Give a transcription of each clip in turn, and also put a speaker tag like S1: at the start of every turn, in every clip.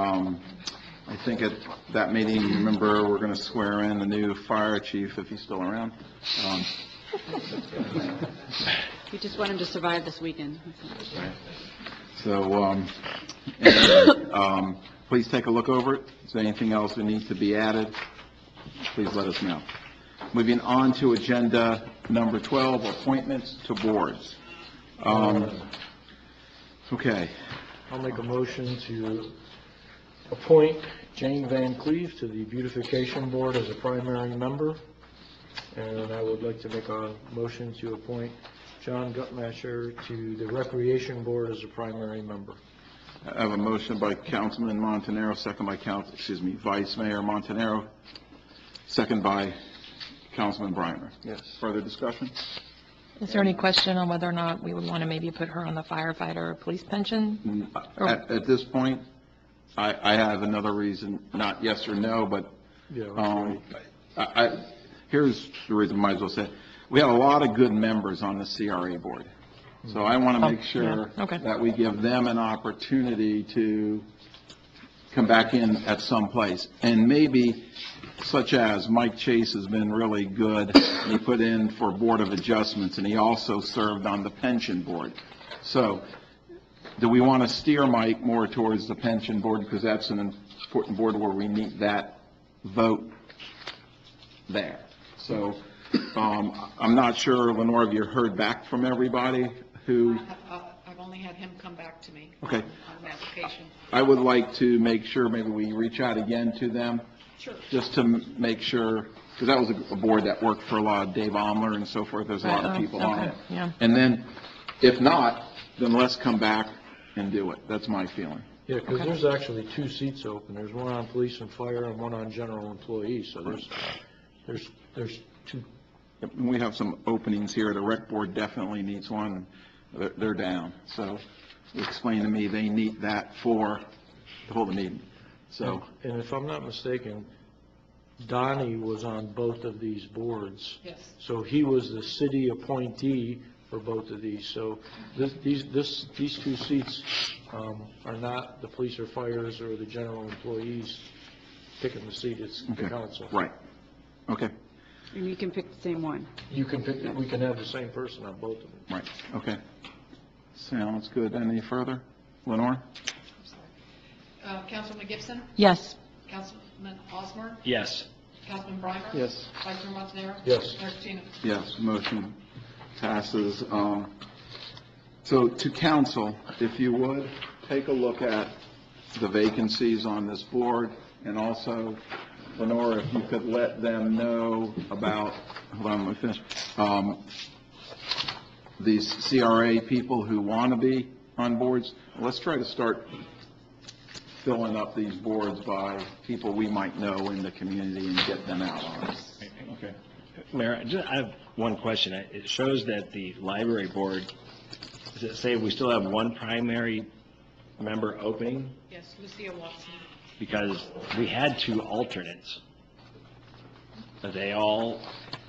S1: Um, I think at that meeting, remember, we're going to swear in the new fire chief if he's still around. Um,
S2: We just want him to survive this weekend.
S1: So, um, anyway, um, please take a look over it. Is there anything else that needs to be added? Please let us know. Moving on to agenda number 12, appointments to boards. Um, Okay,
S3: I'll make a motion to appoint Jane Van Cleve to the Beautification Board as a primary member, and I would like to make a motion to appoint John Gutmacher to the Recreation Board as a primary member.
S1: I have a motion by Councilman Montanaro, second by Council, excuse me, Vice Mayor Montanaro, second by Councilman Breimer.
S3: Yes.
S1: Further discussion?
S4: Is there any question on whether or not we would want to maybe put her on the firefighter or police
S1: Mm-hmm.
S4: pension?
S1: At, at this point, I, I have another reason, not yes or no, but,
S3: Yeah, that's
S1: um,
S3: right.
S1: I, I, here's the reason, might as well say, it. we have a lot of good members on the CRA board. So I want to
S4: Oh,
S1: make sure
S4: yeah, okay.
S1: that we give them an opportunity to come back in at some place. And maybe such as Mike Chase has been really good, he put in for Board of Adjustments, and he also served on the pension board. So do we want to steer Mike more towards the pension board, because that's an important board where we need that vote there? So, um, I'm not sure, Lenore, have you heard back from everybody who,
S5: I've only had him come back to me.
S1: Okay.
S5: On an application.
S1: I would like to make sure, maybe we reach out again to them,
S5: Sure.
S1: just to m- make sure, because that was a- a board that worked for a lot of Dave Omler and so forth, there's a lot of
S4: Right, oh,
S1: people on
S4: okay,
S1: it.
S4: yeah.
S1: And then, if not, then let's come back and do it, that's my feeling.
S3: Yeah, because
S4: Okay.
S3: there's actually two seats open. There's one on police and fire and one on general employees, so there's, there's, there's two,
S1: Yep, and We have some openings here, the rec board definitely needs one, they're, they're down, so explain to me, they need that for, to hold the meeting, so,
S3: and if I'm not mistaken, Donnie was on both of these boards.
S5: Yes.
S3: So he was the city appointee for both of these, so this, these, this, these two seats, um, are not the police or fires or the general employees picking the seat, it's
S1: okay,
S3: the council.
S1: right, okay.
S2: And you can pick the same one.
S3: You can pick, we can have the same person on both of them.
S1: Right, okay. Sounds good. Any further? Lenore?
S5: Uh, Councilman Gibson,
S4: Yes.
S5: Councilman Osmer,
S6: Yes.
S5: Councilman Breimer.
S3: Yes.
S5: Vice Mayor Montanaro.
S3: Yes.
S5: Mayor Patino.
S1: Yes, motion passes. Um, So to council, if you would, take a look at the vacancies on this board, and also, Lenore, if you could let them know about, hold on, let me finish, Um, these CRA people who want to be on boards, let's try to start filling up these boards by people we might know in the community and get them out on it. Okay.
S6: Mayor, I ju- I have one question. I- It shows that the library board, does it say we still have one primary member opening?
S5: Yes, Lucia Watson.
S6: Because we had two alternates. Are they all,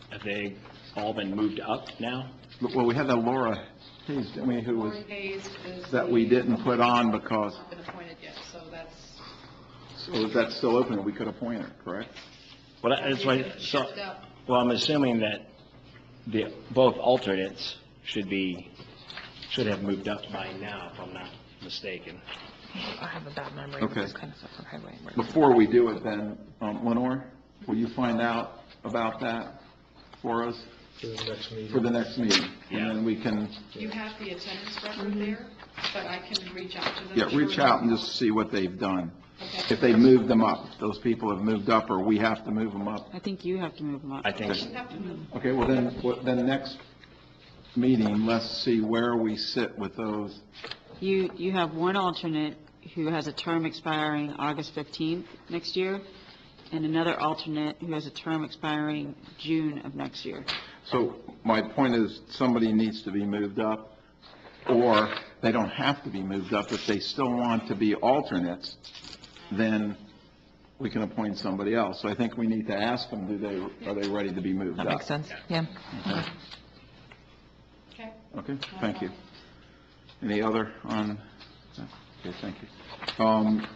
S6: have they all been moved up now?
S1: Well, we had that Laura Hayes, didn't we, who was,
S5: Lori Hayes is.
S1: that we
S5: the-
S1: didn't put on because,
S5: Not been appointed yet, so that's.
S1: so if that's still open, we could appoint her, correct?
S6: Well, that- that's why, so,
S5: Shift up.
S6: well, I'm assuming that the, both alternates should be, should have moved up by now, if I'm not mistaken.
S4: I have a bad memory of
S1: Okay.
S4: this kind of stuff. Okay, wait, wait.
S1: Before we do it then, um, Lenore, will you find out about that for us
S3: For the next meeting.
S1: for the next meeting? And
S6: Yeah.
S1: then we can,
S5: You have the attendance record there, but I can reach out to them.
S1: yeah, reach out and just see what they've done.
S5: Okay.
S1: If they moved them up, those people have moved up, or we have to move them up.
S2: I think you have to move him up.
S6: I think
S5: You have to move.
S1: Okay, well then, what- then next meeting, let's see where we sit with those.
S2: You, you have one alternate who has a term expiring August 15th next year, and another alternate who has a term expiring June of next year.
S1: So my point is, somebody needs to be moved up, or they don't have to be moved up. If they still want to be alternates, then we can appoint somebody else. So I think we need to ask them, do they, are they ready to be moved up?
S4: That makes sense, yeah.
S5: Okay.
S1: Okay, thank you. Any other on, okay, thank you. Um,